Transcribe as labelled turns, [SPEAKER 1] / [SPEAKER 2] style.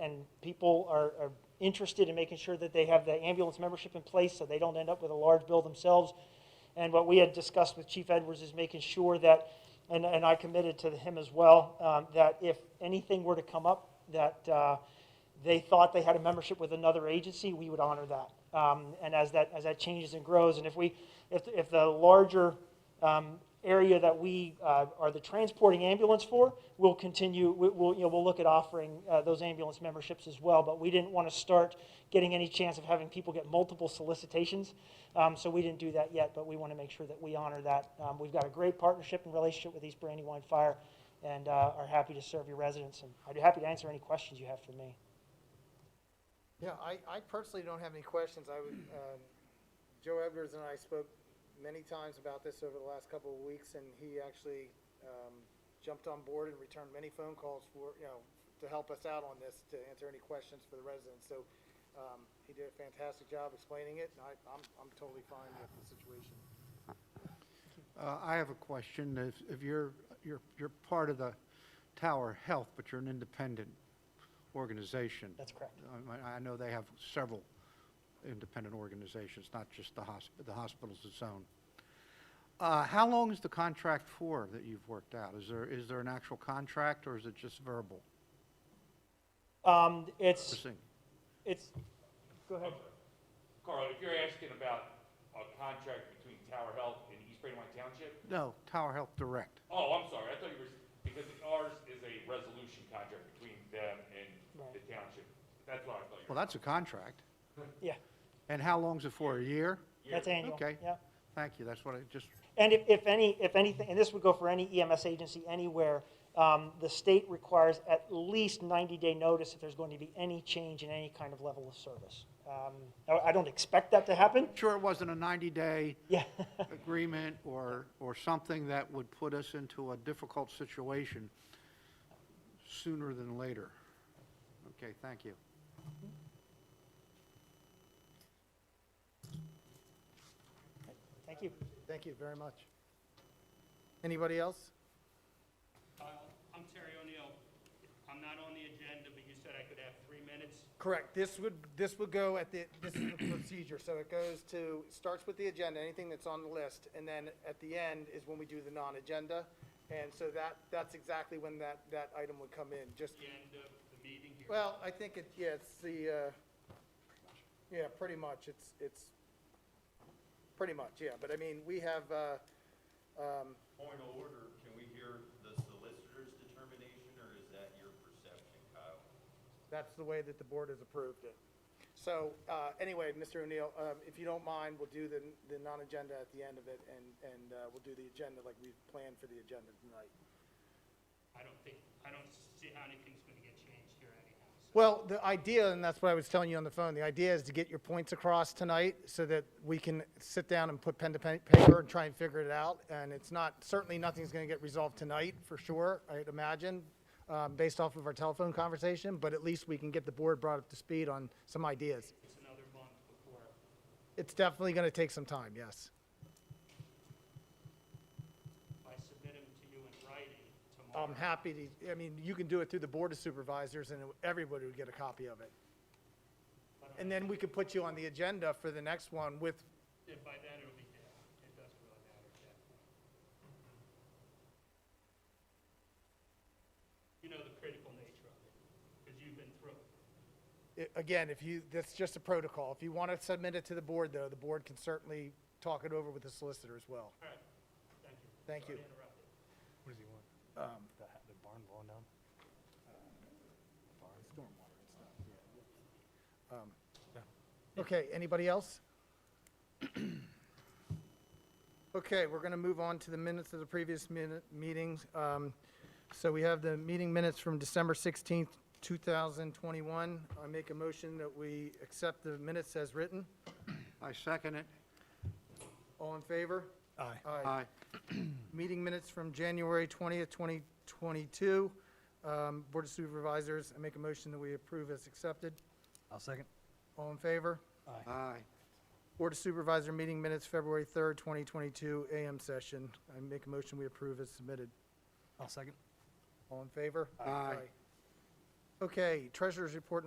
[SPEAKER 1] and people are, are interested in making sure that they have the ambulance membership in place so they don't end up with a large bill themselves. And what we had discussed with Chief Edwards is making sure that, and, and I committed to him as well, um, that if anything were to come up, that, uh, they thought they had a membership with another agency, we would honor that. Um, and as that, as that changes and grows, and if we, if, if the larger, um, area that we, uh, are the transporting ambulance for, we'll continue, we, we'll, you know, we'll look at offering, uh, those ambulance memberships as well, but we didn't want to start getting any chance of having people get multiple solicitations. Um, so we didn't do that yet, but we want to make sure that we honor that. Um, we've got a great partnership and relationship with East Brandywine Fire and, uh, are happy to serve your residents, and I'd be happy to answer any questions you have for me.
[SPEAKER 2] Yeah, I, I personally don't have any questions. I would, um, Joe Edwards and I spoke many times about this over the last couple of weeks, and he actually, um, jumped on board and returned many phone calls for, you know, to help us out on this, to answer any questions for the residents. So, um, he did a fantastic job explaining it, and I, I'm, I'm totally fine with the situation.
[SPEAKER 3] Uh, I have a question. If, if you're, you're, you're part of the Tower Health, but you're an independent organization.
[SPEAKER 1] That's correct.
[SPEAKER 3] I mean, I know they have several independent organizations, not just the hospital, the hospital's its own. Uh, how long is the contract for that you've worked out? Is there, is there an actual contract or is it just verbal?
[SPEAKER 1] Um, it's,
[SPEAKER 3] Interesting.
[SPEAKER 1] it's, go ahead.
[SPEAKER 4] Carl, if you're asking about a contract between Tower Health and East Brandywine Township,
[SPEAKER 3] No, Tower Health Direct.
[SPEAKER 4] oh, I'm sorry, I thought you were, because ours is a resolution contract between them and the township. That's what I thought you
[SPEAKER 3] Well,
[SPEAKER 4] were.
[SPEAKER 3] that's a contract.
[SPEAKER 1] Yeah,
[SPEAKER 3] And how long's it for? A year?
[SPEAKER 1] that's annual.
[SPEAKER 3] Okay.
[SPEAKER 1] Yeah.
[SPEAKER 3] Thank you. That's what I just,
[SPEAKER 1] And if, if any, if anything, and this would go for any EMS agency anywhere, um, the state requires at least ninety-day notice if there's going to be any change in any kind of level of service. Um, I, I don't expect that to happen.
[SPEAKER 3] sure it wasn't a 90-day
[SPEAKER 1] Yeah,
[SPEAKER 3] agreement or, or something that would put us into a difficult situation sooner than later. Okay, thank you.
[SPEAKER 1] thank you.
[SPEAKER 2] Thank you very much. Anybody else?
[SPEAKER 5] Kyle, Uh, I'm Terry O'Neill. I'm not on the agenda, but you said I could have three minutes.
[SPEAKER 2] Correct. This would, this would go at the, this is the procedure, so it goes to, starts with the agenda, anything that's on the list, and then at the end is when we do the non-agenda. And so that, that's exactly when that, that item would come in, just,
[SPEAKER 5] The end of the meeting here.
[SPEAKER 2] well, I think it, yeah, it's the, uh, yeah, pretty much, it's, it's, pretty much, yeah, but I mean, we have, uh, um,
[SPEAKER 6] Point of order, can we hear the solicitor's determination, or is that your perception, Kyle?
[SPEAKER 2] That's the way that the board has approved it. So, uh, anyway, Mr. O'Neill, um, if you don't mind, we'll do the, the non-agenda at the end of it, and, and, uh, we'll do the agenda like we've planned for the agenda tonight.
[SPEAKER 5] I don't think, I don't see how anything's gonna get changed here anyhow, so.
[SPEAKER 2] Well, the idea, and that's what I was telling you on the phone, the idea is to get your points across tonight so that we can sit down and put pen to pa- paper and try and figure it out. And it's not, certainly nothing's going to get resolved tonight, for sure, I'd imagine, um, based off of our telephone conversation, but at least we can get the board brought up to speed on some ideas.
[SPEAKER 5] It's another month before.
[SPEAKER 2] It's definitely going to take some time, yes.
[SPEAKER 5] If I submit them to you in writing tomorrow.
[SPEAKER 2] I'm happy to, I mean, you can do it through the Board of Supervisors, and everybody would get a copy of it.
[SPEAKER 5] but
[SPEAKER 2] And then we could put you on the agenda for the next one with,
[SPEAKER 5] If by then it'll be dead, it doesn't really matter at that point. You know the critical nature of it, because you've been through it.
[SPEAKER 2] i- again, if you, that's just a protocol. If you want to submit it to the board, though, the board can certainly talk it over with the solicitor as well.
[SPEAKER 5] All right,
[SPEAKER 2] Thank
[SPEAKER 5] thank you.
[SPEAKER 2] you. Um,
[SPEAKER 5] Sorry to interrupt.
[SPEAKER 7] What does he want? The, ha- the barn blown down?
[SPEAKER 2] Uh, Um, Okay, anybody else? Okay, we're going to move on to the minutes of the previous minute, meetings. Um, So we have the meeting minutes from December 16th, 2021. I make a motion that we accept the minutes as written.
[SPEAKER 3] I second it.
[SPEAKER 2] All in favor?
[SPEAKER 7] Aye.
[SPEAKER 3] Aye.
[SPEAKER 2] Meeting minutes from January 20th, 2022. Um, Board of Supervisors, I make a motion that we approve as accepted.
[SPEAKER 7] I'll second.
[SPEAKER 2] All in favor?
[SPEAKER 3] Aye.
[SPEAKER 2] Board of Supervisor meeting minutes, February 3rd, 2022, AM session. I make a motion we approve as submitted.
[SPEAKER 7] I'll second.
[SPEAKER 2] All in favor?
[SPEAKER 3] Aye.
[SPEAKER 2] Okay, treasurer's report